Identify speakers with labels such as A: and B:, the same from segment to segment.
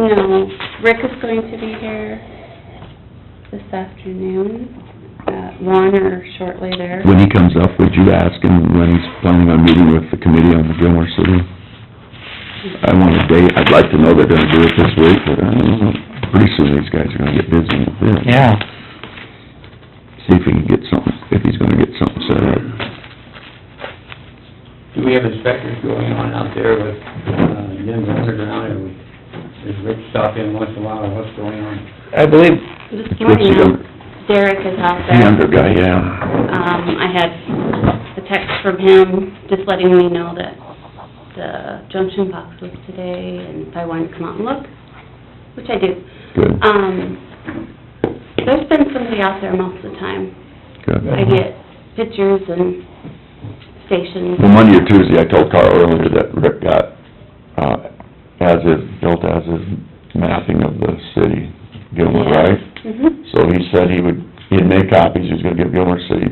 A: No, Rick is going to be here this afternoon, uh, one or shortly there.
B: When he comes up, would you ask him when he's planning on meeting with the committee on the Gilmore City? I want a date, I'd like to know they're gonna do it this week, but I don't know, pretty soon these guys are gonna get busy with this.
C: Yeah.
B: See if he can get something, if he's gonna get something set up.
D: Do we have inspectors going on out there with, uh, Denver Underground, and does Rick stop in once in a while, what's going on?
C: I believe,
A: This
B: What's
A: morning,
B: the other-
A: Derek is out
B: The
A: there.
B: under guy, yeah.
A: Um, I had a text from him, just letting me know that the junction box was today, and if I wanted to come out and look, which I do.
B: Good,
A: Um, there's been somebody out there most of the time. I
B: good.
A: get pictures and stations.
B: Well, Monday or Tuesday, I told Carl earlier that Rick got, uh, as is, built as is mapping of the city, Gilmore, right?
A: Mhm.
B: So he said he would, he had made copies, he was gonna give Gilmore City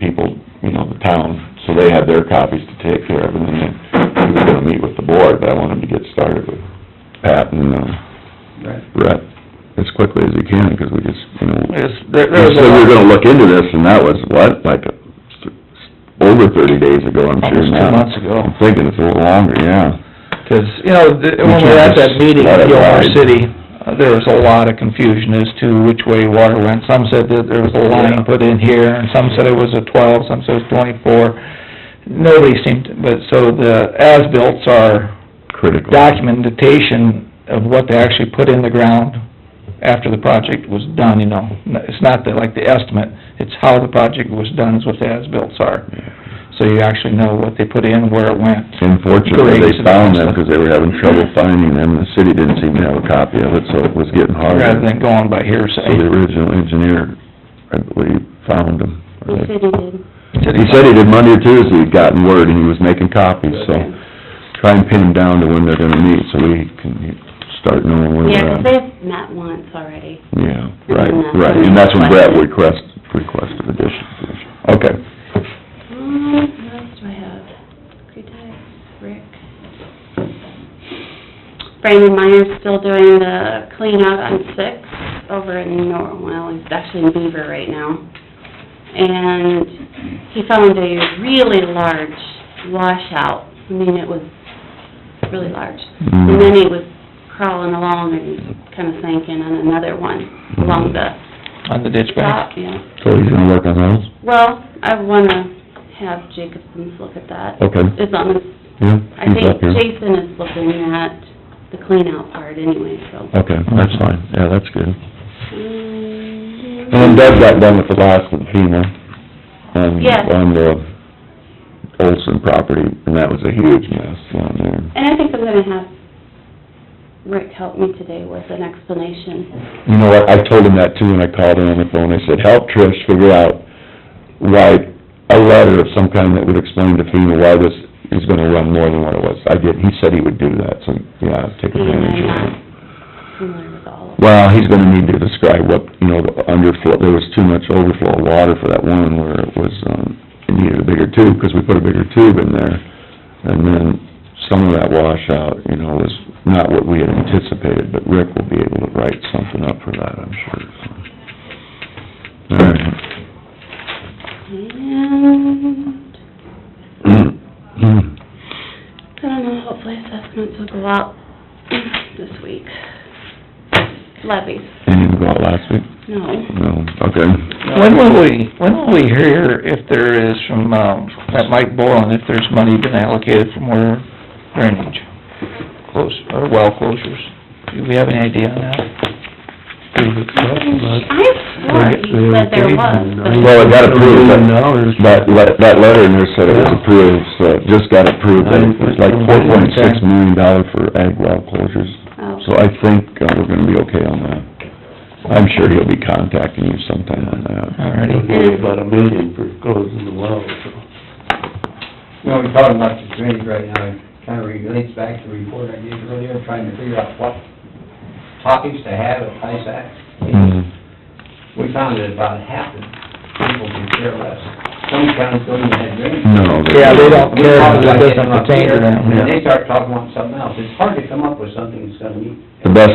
B: people, you know, the town, so they had their copies to take care of, and then he was gonna meet with the board, but I want him to get started with Pat and, uh,
D: Right.
B: Brett as quickly as he can, 'cause we just, you know...
C: there's, there there
B: You
C: was a
B: said we were
C: lot,
B: gonna look into this, and that was, what, like, uh, over thirty days ago, I'm sure
C: almost
B: now.
C: two months ago.
B: I'm thinking it's a little longer, yeah.
C: Because, you know, th- when we were at that meeting
B: Let it
C: in Gilmore
B: ride.
C: City, uh, there was a lot of confusion as to which way water went. Some said that there was a line put in here, and some said it was a twelve, some said it was twenty-four. Nobody seemed, to- but, so the as-built are
B: Critical.
C: documentation of what they actually put in the ground after the project was done, you know. It's not the, like the estimate, it's how the project was done is what the as-bills are. So you actually know what they put in, where it went.
B: Unfortunately, they
C: Grades and
B: found them,
C: stuff.
B: 'cause they were having trouble finding them, the city didn't seem to have a copy of it, so it was getting harder.
C: Rather than going by
B: So the
C: hearsay.
B: original engineer, I believe, found them.
A: He said he did.
B: He said he did Monday or Tuesday, he'd gotten word, and he was making copies, so try and pin him down to when they're gonna meet, so we can start knowing where
A: Yeah,
B: they're
A: 'cause
B: at.
A: they've met once already.
B: Yeah,
A: And
B: right,
A: that's
B: right,
A: when
B: and that's when Brett
A: requested.
B: request, requested addition, okay.
A: Um, what else do I have? Cretice, Rick. Brandon Meyer's still doing the clean out on Six over in Nor, well, he's actually in Beaver right now. And he found a really large washout. I mean, it was really large.
B: Mm.
A: And then he was crawling along and kind of sinking on another one along the
C: On the ditch bank.
A: top, yeah.
B: So he's gonna work on those?
A: Well, I wanna have Jacobson's look at that.
B: Okay.
A: It's on this, I
B: Yeah, Oh. he's
A: think
B: up here.
A: Jason is looking at the cleanout part anyway, so.
B: Okay, that's fine, yeah, that's good.
A: Mm,
B: And then Doug got done with the last of FEMA, and
A: Yes.
B: on the Olson property, and that was a huge mess down there.
A: And I think I'm gonna have Rick help me today with an explanation.
B: You know what, I told him that too, and I called him on the phone, I said, help Trish figure out, write a letter of some kind that would explain to FEMA why this is gonna run more than what it was. I did, he said he would do that, so, yeah,
A: He
B: take
A: and
B: advantage
A: I'm
B: of it.
A: not familiar with all of it.
B: Well, he's gonna need to describe what, you know, the underflow, there was too much overflow water for that one where it was, um, it needed a bigger tube, 'cause we put a bigger tube in there. And then some of that washout, you know, was not what we had anticipated, but Rick will be able to write something up for that, I'm sure. so. All
A: And,
B: right.
A: I don't know, hopefully assessments will go out this week. Levies,
B: Didn't even go out last week?
A: no.
B: No, okay.
C: When will we, when will we hear if there is from, um, that Mike Boland, if there's money been allocated for more drainage? Close, or well closures? Do we have any idea on that?
A: I swore you said there was, but
B: Well, it got approved, but that, le- that letter in there said it was approved, so it just got approved, and it was like four point six million dollar for ag well closures.
A: Oh.
B: So I think uh, we're gonna be okay on that. I'm sure he'll be contacting you sometime on that.
C: Alrighty.
A: It'll be about
E: a million for closing the well, so.
D: You know, we're talking about the drainage right now, it kind of relates back to the report I gave earlier, trying to figure out what topics to have at ISAC.
B: Mm-hmm.
D: We found that about half the people can care less, some counties don't even have drainage.
B: No.
C: Yeah, they don't
D: We
C: care,
D: talk
C: because it
D: about
C: doesn't
D: getting up
C: pertain to
D: here,
C: them,
D: And
C: yeah.
D: they start talking about something else, it's hard to come up with something that's gonna meet
B: The best